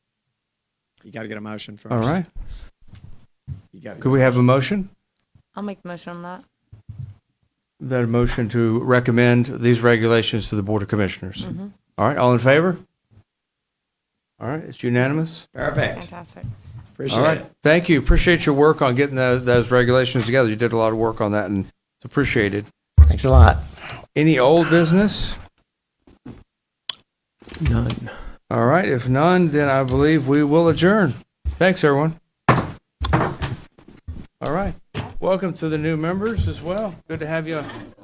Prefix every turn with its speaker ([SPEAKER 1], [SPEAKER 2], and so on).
[SPEAKER 1] You got to get a motion first.
[SPEAKER 2] All right.
[SPEAKER 1] You got to.
[SPEAKER 2] Could we have a motion?
[SPEAKER 3] I'll make the motion on that.
[SPEAKER 2] That a motion to recommend these regulations to the Board of Commissioners. All right, all in favor? All right, it's unanimous.
[SPEAKER 1] Perfect.
[SPEAKER 3] Fantastic.
[SPEAKER 2] All
[SPEAKER 1] Appreciate
[SPEAKER 2] right,
[SPEAKER 1] it.
[SPEAKER 2] thank you. Appreciate your work on getting tho- those regulations together. You did a lot of work on that and it's appreciated.
[SPEAKER 1] Thanks a lot.
[SPEAKER 2] Any old business?
[SPEAKER 4] None.
[SPEAKER 2] All right, if none, then I believe we will adjourn. Thanks, everyone. All right, welcome to the new members as well. Good to have you.